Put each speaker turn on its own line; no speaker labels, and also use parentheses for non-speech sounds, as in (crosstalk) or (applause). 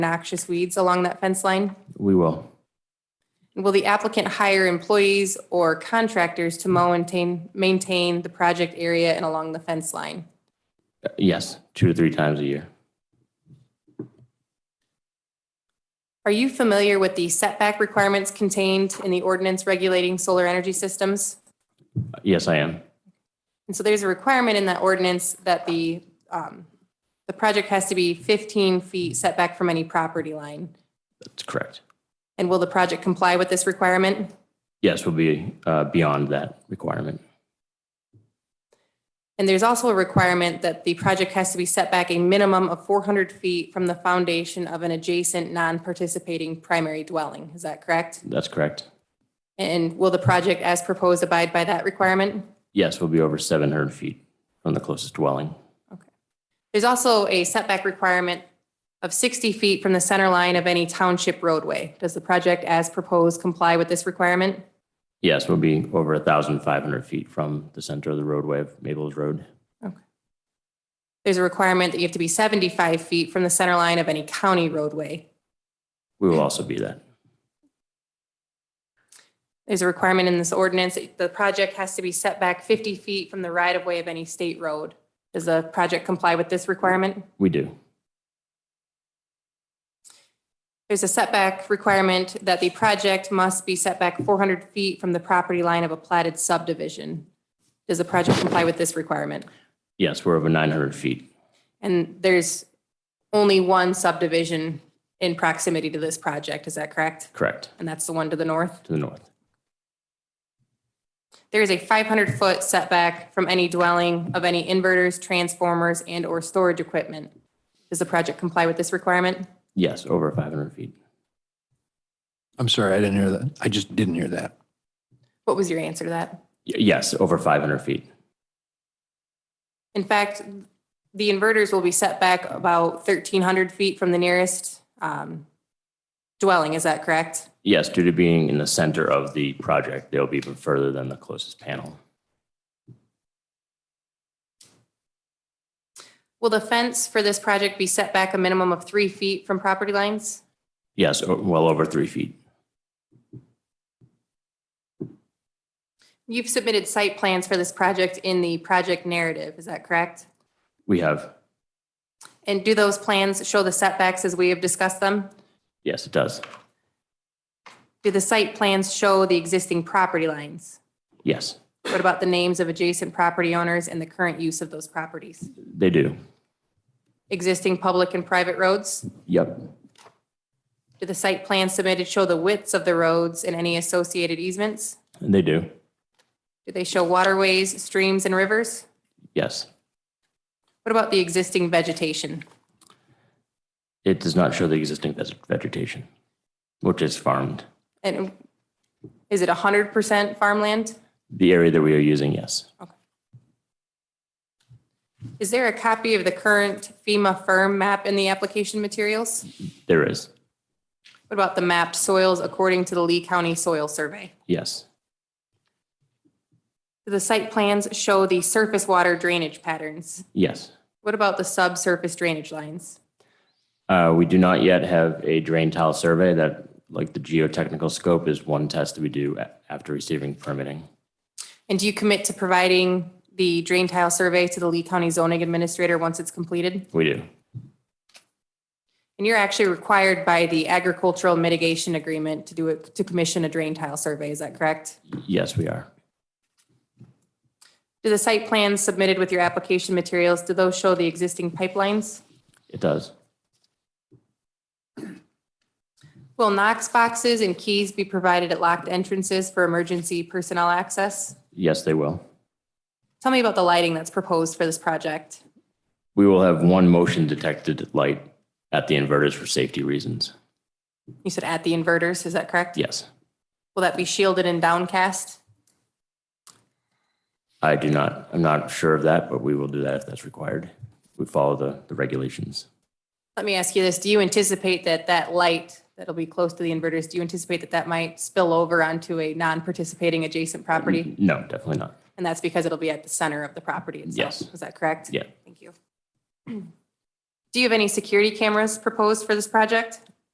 noxious weeds along that fence line?
We will.
Will the applicant hire employees or contractors to mow and maintain, maintain the project area and along the fence line?
Uh, Yes, two to three times a year.
Are you familiar with the setback requirements contained in the ordinance regulating solar energy systems?
Uh, Yes, I am.
And so there's a requirement in that ordinance that the, um, the project has to be 15 feet setback from any property line.
That's correct.
And will the project comply with this requirement?
Yes, we'll be uh, beyond that requirement.
And there's also a requirement that the project has to be set back a minimum of 400 feet from the foundation of an adjacent non-participating primary dwelling. Is that correct?
That's correct.
And will the project as proposed abide by that requirement?
Yes, we'll be over 700 feet from the closest dwelling.
There's also a setback requirement of 60 feet from the center line of any township roadway. Does the project as proposed comply with this requirement?
Yes, we'll be over 1,500 feet from the center of the roadway of Maples Road.
There's a requirement that you have to be 75 feet from the center line of any county roadway.
We will also be that.
There's a requirement in this ordinance, that the project has to be set back 50 feet from the right-of-way of any state road. Does the project comply with this requirement?
We do.
There's a setback requirement that the project must be set back 400 feet from the property line of a platted subdivision. Does the project comply with this requirement?
Yes, we're over 900 feet.
And there's only one subdivision in proximity to this project, is that correct?
Correct,
And that's the one to the north?
to the north.
There is a 500-foot setback from any dwelling of any inverters, transformers, and/or storage equipment. Does the project comply with this requirement?
Yes, over 500 feet.
I'm sorry, I didn't hear that. I just didn't hear that.
What was your answer to that?
Y- Yes, over 500 feet.
In fact, the inverters will be set back about 1,300 feet from the nearest um, dwelling, is that correct?
Yes, due to being in the center of the project, they'll be even further than the closest panel.
Will the fence for this project be set back a minimum of three feet from property lines?
Yes, o- well over three feet.
You've submitted site plans for this project in the project narrative, is that correct?
We have,
And do those plans show the setbacks as we have discussed them?
yes, it does.
Do the site plans show the existing property lines?
Yes,
What about the names of adjacent property owners and the current use of those properties?
they do.
Existing public and private roads?
Yep,
Do the site plans submitted show the widths of the roads and any associated easements?
they do.
Do they show waterways, streams, and rivers?
Yes,
What about the existing vegetation?
it does not show the existing ves- vegetation, which is farmed.
And is it 100% farmland?
The area that we are using, yes.
Is there a copy of the current FEMA firm map in the application materials?
There is,
What about the mapped soils according to the Lee County Soil Survey?
yes.
The site plans show the surface water drainage patterns.
Yes.
What about the subsurface drainage lines?
Uh, we do not yet have a drain tile survey that, like the geotechnical scope, is one test that we do a- after receiving permitting.
And do you commit to providing the drain tile survey to the Lee County zoning administrator once it's completed?
We do,
And you're actually required by the agricultural mitigation agreement to do it, to commission a drain tile survey, is that correct?
yes, we are.
Do the site plans submitted with your application materials, do those show the existing pipelines?
It does,
Will Knox boxes and keys be provided at locked entrances for emergency personnel access?
yes, they will.
Tell me about the lighting that's proposed for this project.
We will have one motion detected light at the inverters for safety reasons.
You said at the inverters, is that correct?
Yes,
Will that be shielded and downcast?
I do not, I'm not sure of that, but we will do that if that's required. We follow the, the regulations.
Let me ask you this, do you anticipate that that light that'll be close to the inverters, do you anticipate that that might spill over onto a non-participating adjacent property?
No, definitely not.
And that's because it'll be at the center of the property itself? (clears throat)
Yes.
Is that correct?
Yeah.
Thank you. Do you have any security cameras proposed for this project?